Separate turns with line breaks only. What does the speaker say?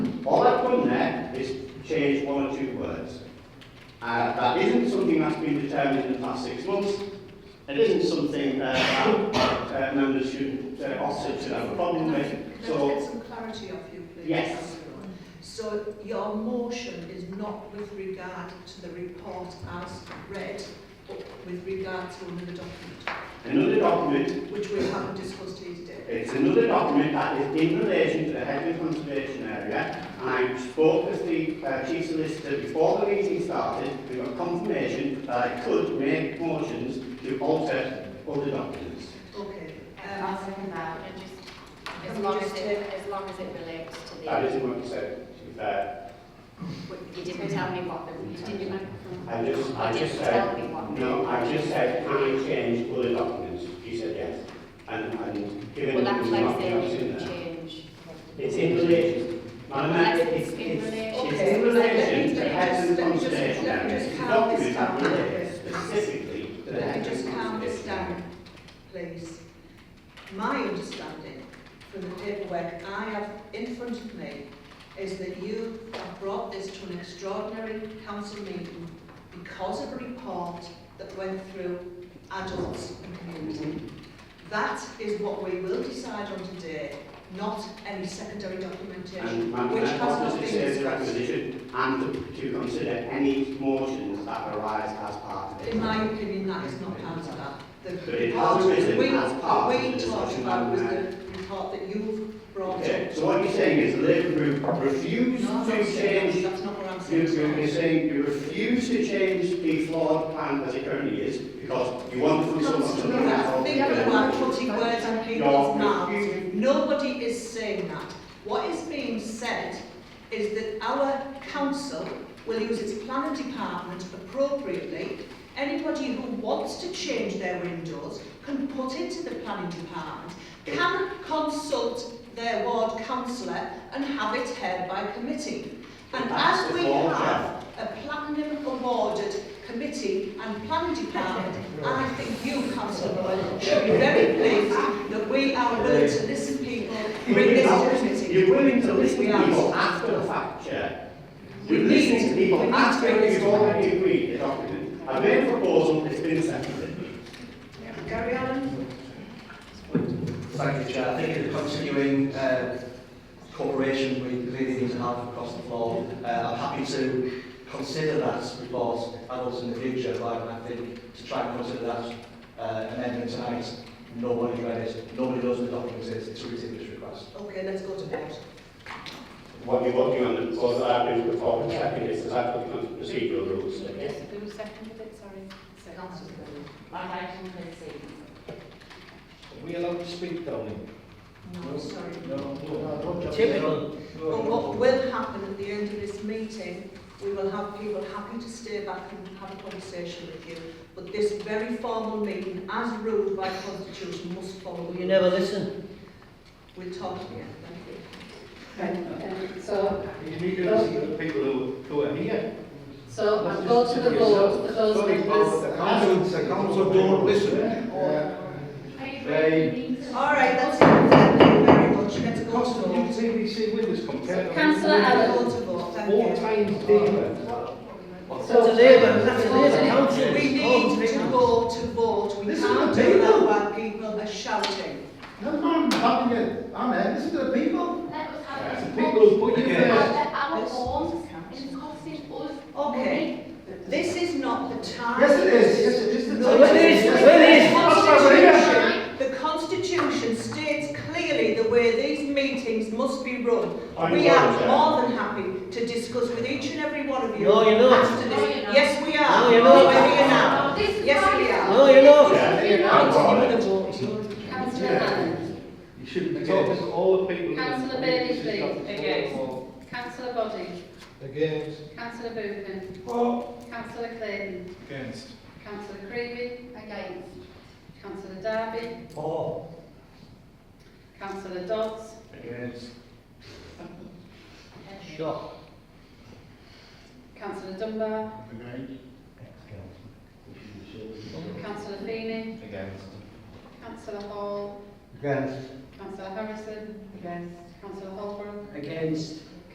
change one or two words. Uh, that isn't something that's been determined in the past six months. It isn't something uh, that uh, members should uh, also should have a problem with.
Can I
So
get some clarity off you, please?
Yes.
Councillor Owen? So your motion is not with regard to the report as read, but with regard to another document,
another document
which we haven't discussed here today.
It's another document that is in relation to the Headley Conservation Area, and I spoke with the uh, Chief Solicitor before the meeting started, we got confirmation that I could make motions to alter other documents.
Okay.
Um, I'll second that, and just, as long as it, as long as it relates to
That
the,
isn't what you said, to be fair.
you didn't tell me what the, you didn't remember.
I just, I
You
just
didn't tell me
said,
what.
no, I just said, can I change other documents? You said yes. And, and given
Well,
the
that's
reason
like
why I
saying
was
you
in
can
there.
change.
It's in relation. Madam Mayor,
Unless
it's,
it's in
it's,
relation.
it's in relation to
Okay.
Headley
Let me just-
Conservation
let me
Area. It's
just
a
calm this
document that
down.
relates specifically to the
Let me
Headley
just calm this
Conservation Area.
down, please. My understanding from the paperwork I have in front of me is that you have brought this to an extraordinary council meeting because of a report that went through adults and community. That is what we will decide on today, not any secondary documentation,
And Madam
which
Mayor,
has not
obviously,
been
says the
discussed.
recommendation and to consider any motions that arise as part of it.
In my opinion, that is not part of that. The
But it
report
has arisen
that we,
as part of
we
the
talked
discussion,
about was
Madam
the report that you've brought
Okay,
up.
so what you're saying is the Labour Group refused
No, I'm
to
not saying
change,
that. That's not what I'm
you,
saying.
you- you're saying you refuse to change the flawed plan as it currently is because you want to put someone to the
Councillor, I think you are putting words in people's mouths.
You're
Nobody is saying that. What is being said is that our council will use its planning department appropriately. Anybody who wants to change their windows can put it to the planning department, can consult their ward councillor and have it heard by committee. And
That's
as
the
we
law,
have a platinum awarded committee and planning department, I think you, councillor Boyle, should be very pleased that we are willing to listen to people, bring this to the committee.
You're willing to listen to
We are.
people after the fact, Chair.
We
You're listening to
need- we
people
need
after
to
you've
listen.
already agreed the document. I made a proposal, it's been seconded.
Gary Allen?
Thank you, Chair. I think in a continuing uh, cooperation we really need to have across the floor, uh, I'm happy to consider that report and also in the future, but I think to try and consider that uh, amendment tonight, nobody read it, nobody knows what the document is, it's a ridiculous request.
Okay, let's go to vote.
What you're working on, the proposal that I've been put forward
Yeah.
second is as I've put on procedural rules.
Yes, who seconded it, sorry? Councillor Boyle. I seconded it.
Are we allowed to speak down here?
No, sorry.
No.
Typical. But what will happen at the end of this meeting, we will have people happy to stay back and have a conversation with you. But this very formal meeting, as ruled by constitution, must follow. You never listen. We'll talk again, thank you.
Um, So,
You need to listen to the people who, who are here.
so I'll go to the vote, for those
Sorry,
members.
but the council, the council don't listen. Uh, They,
All right, that's it, thank you very much, let's go
cost
to
of new
vote.
TVC windows compared to.
Councillor Allen.
Go to vote, thank
Four
you.
times dealer.
That's a Labour, that's a Labour
We need to go to vote, we
This is
can't
the
do that
table.
while people are shouting.
No, I'm having it, I'm here, listen to the people. It's the people who put you there.
Our homes is costing us
Okay, this is not the time.
Yes, it is, yes, it is. the
No,
time.
it is,
Yes,
it is.
That's why we're here.
The Constitution states clearly the way these meetings must be run.
I'm
We are
sorry, Chair.
more than happy to discuss with each and every one of you.
No, you're not.
after this.
No, you're not.
Yes, we are.
No, you're not.
We're here now.
This is
Yes,
why-
we are.
No, you're not.
Yeah,
You're not.
I'm for it.
Councillor Allen,
You should be talking to all the people.
Councillor Bailey, please. councillor Body,
Against.
councillor Buchan, councillor Clayton,
Against.
councillor Creevy, against, councillor Darby,
Oh.
councillor Dodds,
Against.
Sure.
councillor Dunbar, councillor Feeney,
Against.
councillor Hall,
Against.
councillor Harrison,
Against.
councillor Holbrook,
Against.